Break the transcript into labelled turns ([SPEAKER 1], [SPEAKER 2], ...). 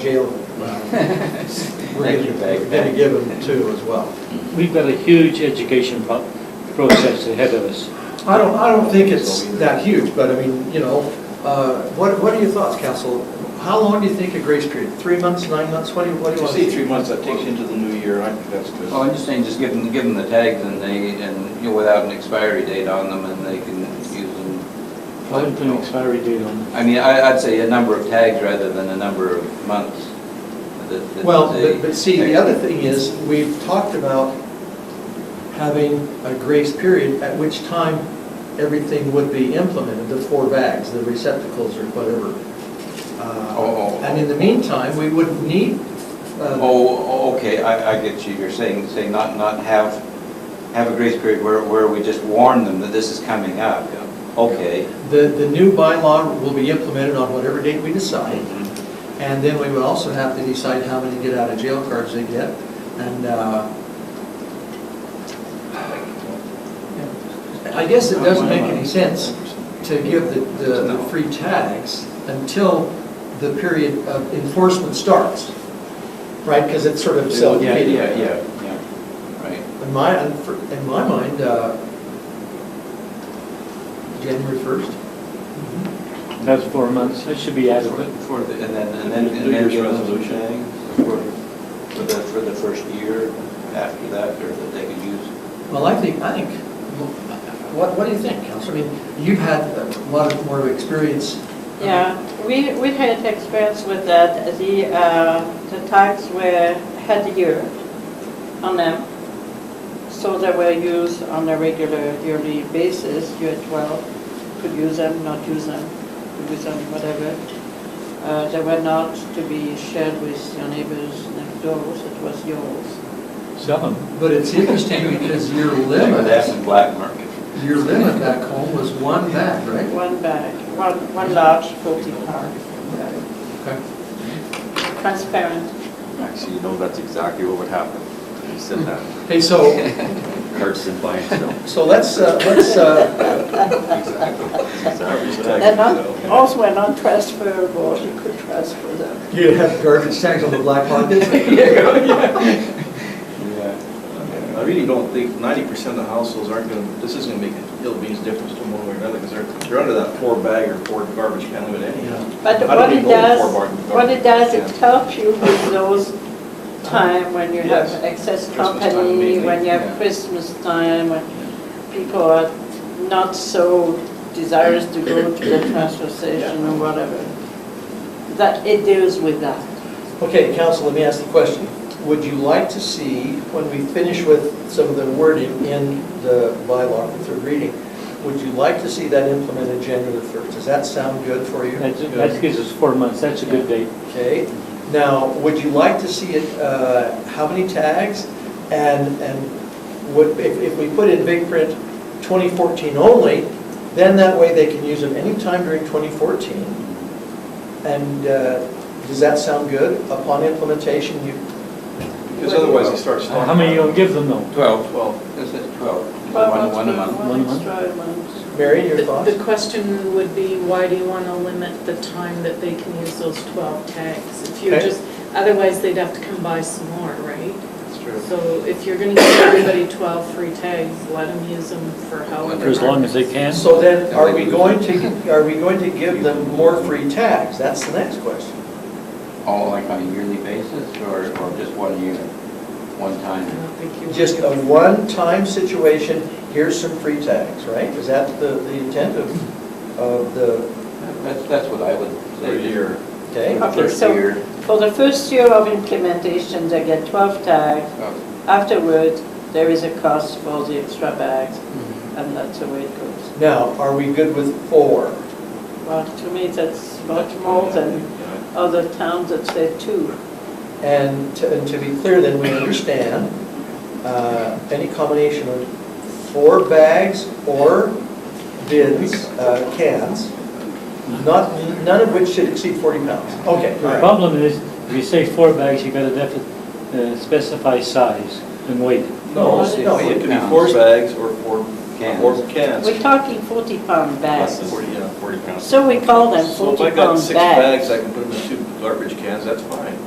[SPEAKER 1] jail. We're
[SPEAKER 2] Thank you, Peg.
[SPEAKER 1] Going to give them two as well.
[SPEAKER 3] We've got a huge education pro- process ahead of us.
[SPEAKER 1] I don't, I don't think it's that huge, but I mean, you know, uh, what, what are your thoughts, council? How long do you think a grace period? Three months, nine months? What do you, what do
[SPEAKER 4] If
[SPEAKER 1] you
[SPEAKER 4] you
[SPEAKER 1] want?
[SPEAKER 4] say three months, that takes you into the new year, I think that's good.
[SPEAKER 2] Well, I'm just saying, just give them, give them the tags and they, and, you know, without an expiry date on them and they can use
[SPEAKER 3] I haven't put an
[SPEAKER 2] them.
[SPEAKER 3] expiry date on
[SPEAKER 2] I mean, I, I'd say a number of tags rather than a number of months. That- that
[SPEAKER 1] Well,
[SPEAKER 2] they-
[SPEAKER 1] but, but see, the other thing is, we've talked about having a grace period at which time everything would be implemented, the four bags, the receptacles or whatever. Uh,
[SPEAKER 2] Oh, oh, oh.
[SPEAKER 1] And in the meantime, we wouldn't need, uh,
[SPEAKER 2] Oh, oh, okay, I, I get you, you're saying, say not, not have, have a grace period where, where we just warn them that this is coming up. Okay.
[SPEAKER 1] the, the new bylaw will be implemented on whatever date we decide. And then we would also have to decide how many get out of jail cards they get. And uh, I guess it doesn't make any sense to give the, the the free tags until the period of enforcement starts, right? Because it's sort of
[SPEAKER 2] Yeah,
[SPEAKER 1] self-defeating.
[SPEAKER 2] yeah, yeah, yeah, right.
[SPEAKER 1] In my, in my mind, uh, January 1st?
[SPEAKER 3] it. That's four months, that should be adequate.
[SPEAKER 2] For the, and then, and then.
[SPEAKER 4] New Year's
[SPEAKER 2] and then-
[SPEAKER 4] resolution.
[SPEAKER 2] For for the, for the first year after that, or that they could use.
[SPEAKER 1] Well, I think, I think, what, what do you think, Counselor? I mean, you've had a lot of more experience.
[SPEAKER 5] Yeah, we, we had experience with that. The, uh, the tags were, had a year on them. So they were used on a regular yearly basis, year 12, could use them, not use them, could use them, whatever. Uh, They were not to be shared with your neighbors next doors, it was yours.
[SPEAKER 3] Sell them.
[SPEAKER 1] But it's interesting because your
[SPEAKER 2] That's
[SPEAKER 1] limit,
[SPEAKER 2] in black market.
[SPEAKER 1] your limit back home was one bag, right?
[SPEAKER 5] One bag, one, one large 40 pound,
[SPEAKER 1] Okay.
[SPEAKER 5] transparent.
[SPEAKER 6] Actually, you know, that's exactly what would happen. You said that,
[SPEAKER 1] Hey, so,
[SPEAKER 6] carts and buying stuff.
[SPEAKER 1] so let's, uh, let's, uh,
[SPEAKER 5] They're not,
[SPEAKER 6] Exactly.
[SPEAKER 5] those were not transferable, you could transfer them.
[SPEAKER 1] you have garbage tags on the black market?
[SPEAKER 4] I really don't think ninety percent of the households aren't gonna, this isn't gonna make a hill beans difference to them one way or another, because they're, they're under that four bag or four garbage can limit anyhow.
[SPEAKER 5] But
[SPEAKER 4] How do
[SPEAKER 5] what
[SPEAKER 4] we
[SPEAKER 5] it
[SPEAKER 4] go for
[SPEAKER 5] does,
[SPEAKER 4] bargain-
[SPEAKER 5] what it does, it
[SPEAKER 4] Yeah. Uh-huh.
[SPEAKER 5] helps you with those time when you have
[SPEAKER 4] Yes.
[SPEAKER 5] excess
[SPEAKER 4] Christmas time
[SPEAKER 5] company,
[SPEAKER 4] mainly,
[SPEAKER 5] when you
[SPEAKER 4] yeah.
[SPEAKER 5] have Christmas time, when people are not so desirous to go to the transfer station or whatever. That it deals with that.
[SPEAKER 1] Okay, council, let me ask the question. Would you like to see, when we finish with some of the wording in the bylaw for third reading, would you like to see that implemented January 1st? Does that sound good for you?
[SPEAKER 3] That's- That gives us four months, that's a good date.
[SPEAKER 1] Okay, now, would you like to see it, uh, how many tags? And, and would, if, if we put in big print 2014 only, then that way they can use them anytime during 2014. And uh, does that sound good? Upon implementation, you,
[SPEAKER 4] Because otherwise they start
[SPEAKER 3] Uh,
[SPEAKER 4] stocking.
[SPEAKER 3] How many you gonna give them though?
[SPEAKER 2] Twelve,
[SPEAKER 4] Well,
[SPEAKER 2] is it twelve? One,
[SPEAKER 5] But
[SPEAKER 2] one a month.
[SPEAKER 5] One
[SPEAKER 3] One month.
[SPEAKER 5] extra month.
[SPEAKER 1] Mary, your
[SPEAKER 7] The
[SPEAKER 1] thoughts?
[SPEAKER 7] the question would be, why do you want to limit the time that they can use those 12 tags? If you're
[SPEAKER 1] Okay.
[SPEAKER 7] just, otherwise they'd have to come buy some more, right?
[SPEAKER 4] that's true.
[SPEAKER 7] So if you're going to give everybody 12 free tags, let them use them for however.
[SPEAKER 3] For as long as they can?
[SPEAKER 1] So then, are we going to, are we going to give them more free tags? That's the next question.
[SPEAKER 2] All like on a yearly basis, or, or just one year, one
[SPEAKER 7] I
[SPEAKER 2] time?
[SPEAKER 7] don't think you.
[SPEAKER 1] Just a one-time situation, here's some free tags, right? Is that the, the intent of, of the,
[SPEAKER 2] That's, that's what I would say.
[SPEAKER 4] For a year.
[SPEAKER 1] okay?
[SPEAKER 2] The First
[SPEAKER 5] Okay, so-
[SPEAKER 2] year.
[SPEAKER 5] For the first year of implementation, they get 12 tags.
[SPEAKER 2] Oh,
[SPEAKER 5] Afterward, there is a cost for the extra bags,
[SPEAKER 4] Mm-hmm.
[SPEAKER 5] and that's the way it goes.
[SPEAKER 1] Now, are we good with four?
[SPEAKER 5] Well, to me, that's much more than
[SPEAKER 4] Yeah.
[SPEAKER 5] other towns that say two.
[SPEAKER 1] And to, and to be clear, then we understand, uh, any combination of four bags or bins, uh, cans, not, none of which should exceed 40 pounds. Okay, all
[SPEAKER 3] The
[SPEAKER 1] right.
[SPEAKER 3] problem is, if you say four bags, you gotta def- uh, specify size and weight.
[SPEAKER 4] No,
[SPEAKER 1] No, no,
[SPEAKER 4] it could be
[SPEAKER 2] pounds.
[SPEAKER 4] four bags or four,
[SPEAKER 2] Cans.
[SPEAKER 4] or cans.
[SPEAKER 5] We're talking 40-pound bags.
[SPEAKER 6] Buses.
[SPEAKER 4] Forty, yeah, forty pounds.
[SPEAKER 5] So we call them
[SPEAKER 4] So if I got
[SPEAKER 5] 40-pound
[SPEAKER 4] six bags, I
[SPEAKER 5] bags.
[SPEAKER 4] can put them in two, garbage cans, that's fine.